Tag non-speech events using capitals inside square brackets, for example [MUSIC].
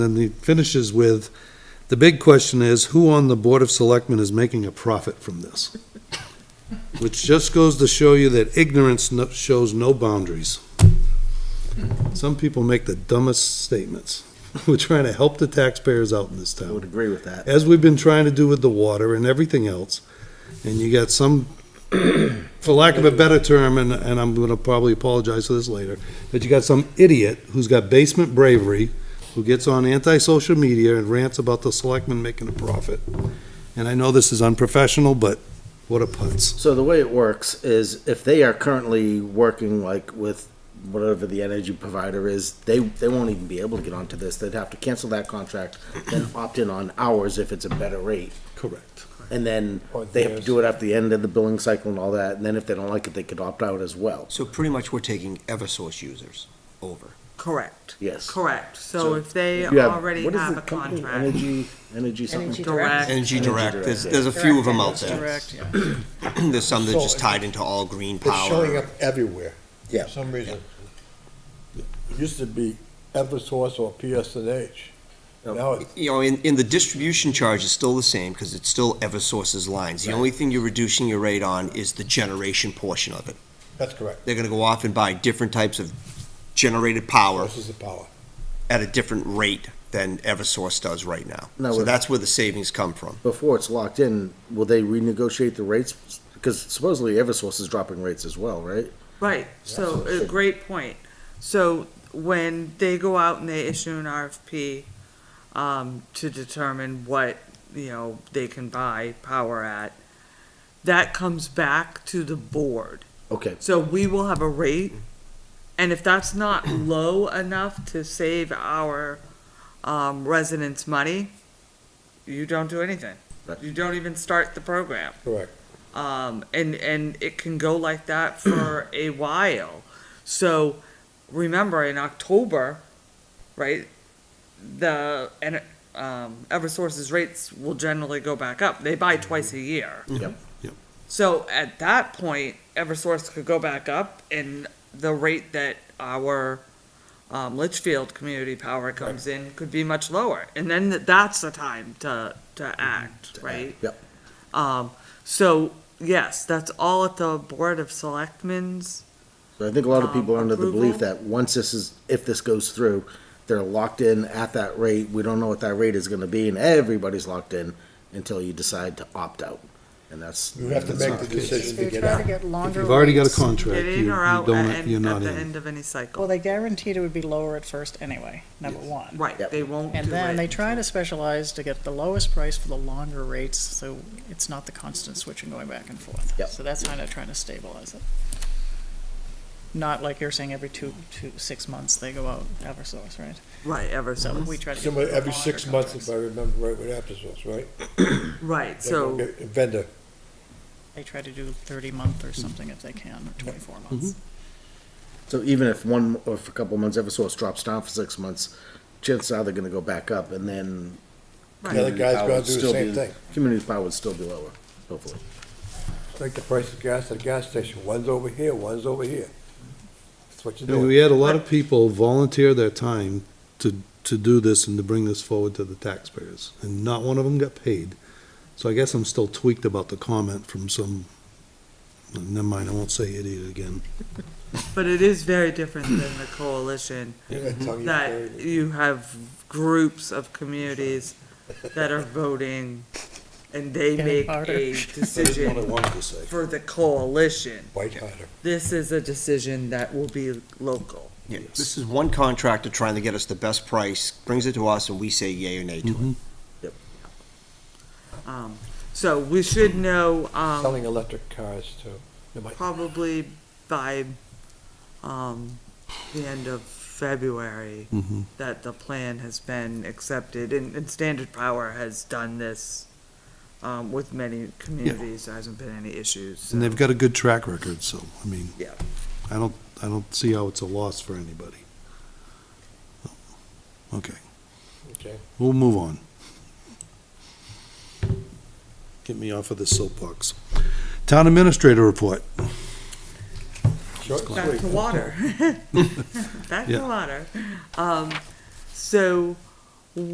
Then he finishes with, the big question is, who on the Board of Selectmen is making a profit from this? [LAUGHS] Which just goes to show you that ignorance no- shows no boundaries. Some people make the dumbest statements. [LAUGHS] We're trying to help the taxpayers out in this I would town, agree with that. as we've been trying to do with the water and everything else. And you got some, [CLEARS THROAT] for lack of a better term, and, and I'm gonna probably apologize for this later, but you got some idiot who's got basement bravery, who gets on anti-social media and rants about the selectmen making a profit. And I know this is unprofessional, but what a putz. So the way it works is if they are currently working like with whatever the energy provider is, they, they won't even be able to get onto this. They'd have to cancel that contract, then opt in on ours if it's a better rate. Correct. And then they have to do it at the end of the billing cycle and all that. And then if they don't like it, they could opt out as well. So pretty much we're taking Eversource users over. Correct, Yes. correct. So So if they You have- already what is have the a company? contract, Energy, energy something. direct, Energy Energy Direct, Direct, there's, yeah. there's a few of them out Direct, there. Direct, [CLEARS THROAT] There's some that are just So- tied into all green It's showing power. up everywhere. Yeah. For some reason. It used to be Eversource or PSNH. Now it's You know, in, in the distribution charge is still the same because it's still Eversource's lines. The only thing you're reducing your rate on is the generation portion of it. that's correct. They're gonna go off and buy different types of generated power This is the power. at a different rate than Eversource does right now. No, So we're- that's where the savings come from. Before it's locked in, will they renegotiate the rates? Because supposedly Eversource is dropping rates as well, right? right, so a great point. So when they go out and they issue an RFP, um, to determine what, you know, they can buy power at, that comes back to the board. Okay. So we will have a rate, and if that's not low enough to save our, um, residents money, you don't do anything. Right. You don't even start the program. Correct. um, and and it can go like that for a while. So remember, in October, right, the and um, EverSource's rates will generally go back up. They buy twice a year. Yep. Yep. So at that point, EverSource could go back up, and the rate that our um, Litchfield Community Power comes in could be much lower, and then th- that's the time to to act, right? Yep. Um, so, yes, that's all at the Board of Selectmen's. So I think a lot of um, people are under the belief approval? that once this is, if this goes through, they're locked in at that rate. We don't know what that rate is gonna be and everybody's locked in until you decide to opt out. And that's. You have to make the decision to They're get trying to out. get If longer. you've already got a rates. contract, Get you you in or out don't, at, you're en- at not the in. end of any cycle. Well, they guaranteed it would be lower at first anyway, number one. Right, Yep. they won't do it. And then they try to specialize to get the lowest price for the longer rates, so it's not the constant switching going back and forth. Yep. So that's kind of trying to stabilize it. Not like you're saying every two, two, six months they go out Eversource, right? Right, ever So so. we try to. get Similar, every longer six months, if contracts. I remember right, with Eversource, right? Right, They so. get a Vendor. They try to do thirty month or something if they can, or twenty-four months. So even if one, or if a couple of months, Eversource drops down for six months, chances are they're gonna go back up and then. Right. The other guy's Power gonna would do the still same be- thing. Community power would still be lower, hopefully. It's like the price of gas at a gas station. One's over here, one's over here. That's what you're And doing. We had a lot of people volunteer their time to, to do this and to bring this forward to the taxpayers, and not one of them got paid. So I guess I'm still tweaked about the comment from some, never mind, I won't say idiot again. But it is very different than the coalition, That's how you that carry it. you have groups of communities that are voting, and they Getting make harder. [LAUGHS] a decision wanted to say. for the coalition. White hotter. This is a decision that will be local. Yeah, This is one contractor trying to get us the best price, brings it to us, and we say yay or nay to Mm-hmm. it. Um, so we should know, um, Selling electric cars too. They might- probably by, um, the end of February Mhm. that the plan has been accepted and, and Standard Power has done this, um, with many communities. There hasn't been any issues. so- And they've got a good track record, so, I mean. Yeah. I don't, I don't see how it's a loss for anybody. Okay, Okay. we'll move on. Get me off of this soapbox. Town administrator report. Short and [LAUGHS] Back sweet. to water. [LAUGHS] Back Yeah. to water. Um, so,